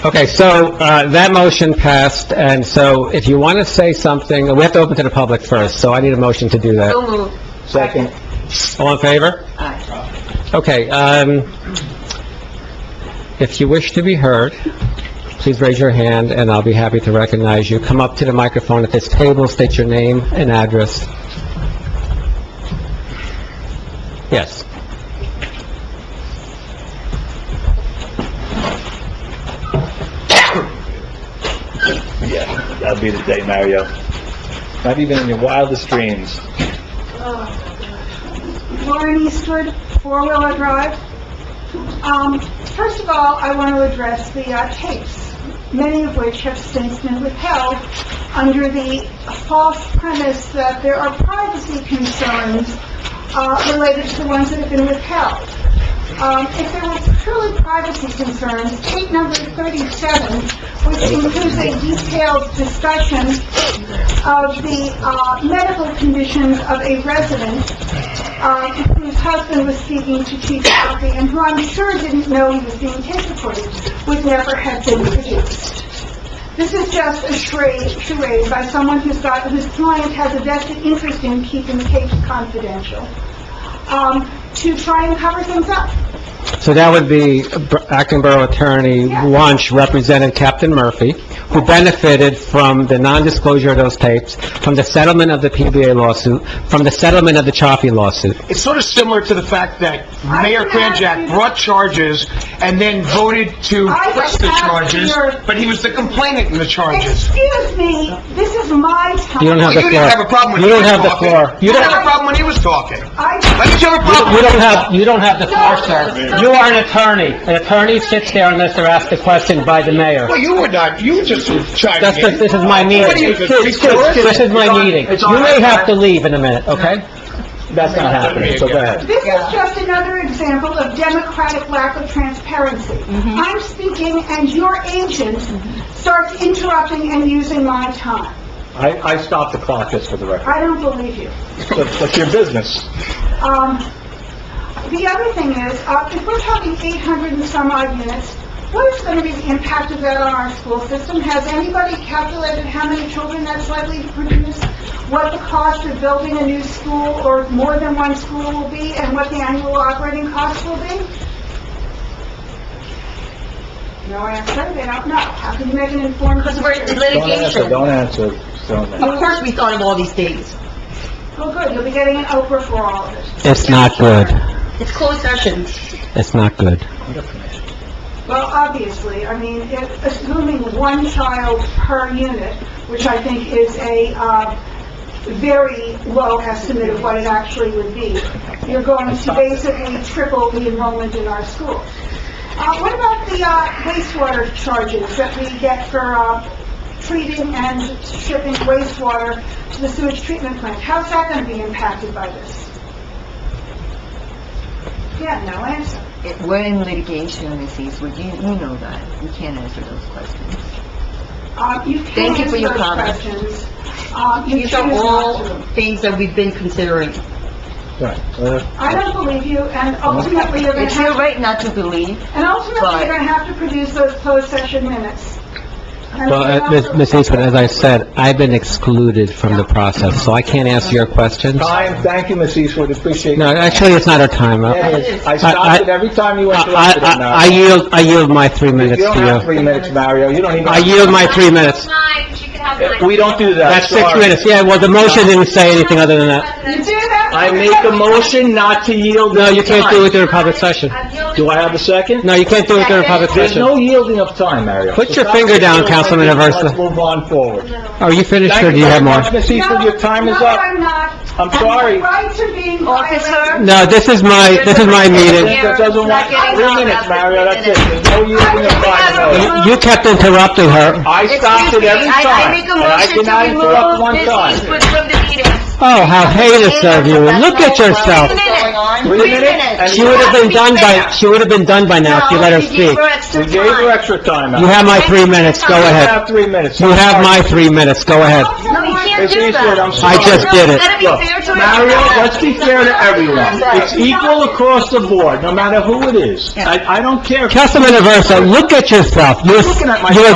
Okay, so, uh, that motion passed, and so if you want to say something, we have to open to the public first, so I need a motion to do Oh. that. So moved. Second. All in favor? Aye. Okay, um, if you wish to be heard, please raise your hand, and I'll be happy to recognize you. Come up to the microphone at this table, state your name and address. Yes. Yeah, that'll be the day, Mario. Not even in your wildest dreams. Lauren Eastwood, Four Wheeler Drive. Um, First of all, I want to address the uh, tapes, many of which have since been withheld under the false premise that there are privacy concerns uh, related to the ones that have been withheld. Um, If there were truly privacy concerns, tape number 37, which includes a detailed discussion of the uh, medical conditions of a resident, uh, whose husband was speaking to Chief Duffy, and who I'm sure didn't know he was being tape recorded, would never have been produced. This is just a charade, charade by someone who's got, whose client has a vested interest in keeping tapes confidential, um, to try and cover things up. So that would be Acting Borough Attorney Wunsch represented Captain Murphy, who benefited from the non-disclosure of those tapes, from the settlement of the PBA lawsuit, from the settlement of the Chaffee lawsuit. It's sort of similar to the fact that I Mayor can ask you- Kranjak brought charges and then voted to I can press the ask charges, your- but he was the complainant in the charges. Excuse me, this is my time. You don't have But the floor. you didn't have a problem when You he don't was have the talking. floor. You You didn't don't, have a problem when he was talking. Why I, did you have a problem? you don't have, you don't have the floor, No. sir. You are an attorney. An attorney sits there unless they're asked a question by the mayor. Well, you were not, you were just That's, chiming the- in. this is my meeting. What are you, the Excuse- excuse- recorder? This is It's my on- meeting. it's on You may record. have to leave in a minute, okay? That's not happening, so go ahead. this is just another example of democratic lack of transparency. I'm speaking and your agent starts interrupting and using my time. I, I stopped the clock just for the record. I don't believe you. But, but your business. Um, the other thing is, uh, if we're talking 800 and some odd units, what is going to be the impact of that on our school system? Has anybody calculated how many children that's likely to produce? What the cost of building a new school or more than one school will be, and what the annual operating cost will be? No answer, they don't know. How can you make an Oh. informed Because we're in decision? Don't answer, litigation. don't answer, don't answer. Of course, we thought of all these things. Well, good, you'll be getting an Oprah for all of it. It's not good. It's closed session. It's not good. Well, obviously, I mean, if- assuming one child per unit, which I think is a uh, very low estimate of what it actually would be, you're going to basically triple the enrollment in our schools. Uh, What about the uh, wastewater charges that we get for uh, treating and shipping wastewater to the sewage treatment plant? How's that going to be impacted by this? Yeah, no answer. It- We're in litigation, Ms. Eastwood, you, you know that, we can't answer those questions. Uh, you can Thank you answer for your those comment. questions. Uh, you These are choose not all to. things that we've been considering. Right, uh, I don't believe you, and ultimately you're gonna It's your have, right not to believe, and ultimately you're Right. gonna have to produce those closed session minutes. And Well, we uh, Ms. also- Ms. Eastwood, as I said, I've been excluded from the process, so I can't answer your questions. Time, thank you, Ms. Eastwood, appreciate No, it. actually, it's not our time. Yeah, I, it is. I I- stopped it every time you I- interrupted it, I- I Mario. yield, I yield my three You minutes don't have to three minutes, Mario, you don't even... uh, you. I yield my three minutes. Mine, she could have mine. We don't do that, That's six sorry. minutes, yeah, well, the motion didn't say anything other than that. You do that? I make a motion not to yield No, any you can't do it time. during public session. I'm the only- Do I have a second? No, you can't do it during public There's session. no yielding of time, Mario. Put So your stop finger down, yielding. Councilman Aversa. Let's move on forward. Are you finished, or do you have more? Thank you very much, Ms. Eastwood, your time is No, up. I'm not. I'm sorry. And my rights are being violated. Officer? No, this is my, this is my meeting. That doesn't want, three minutes, Mario, that's it, there's no yielding of time, Mario. You- You kept interrupting her. I stopped it every Excuse me, I- I time, make a and I motion cannot to interrupt one remove Ms. time. Eastwood from the meeting. Oh, how heinous of you. Look at yourself. Three minutes. Three minutes, and She would have been done by, she would have been done by now if you let her speak. we gave her extra time, You Mario. have my three minutes, go You ahead. have three minutes. You have my three minutes, go ahead. Also, No, you my can't just do Finish it, I'm that. sorry. I just did it. Gotta be Look, fair to Mario, everyone. let's be fair to everyone. It's equal across the board, no matter who it is. I, I don't care. if- Councilman Aversa, look at yourself. You're Looking at you're a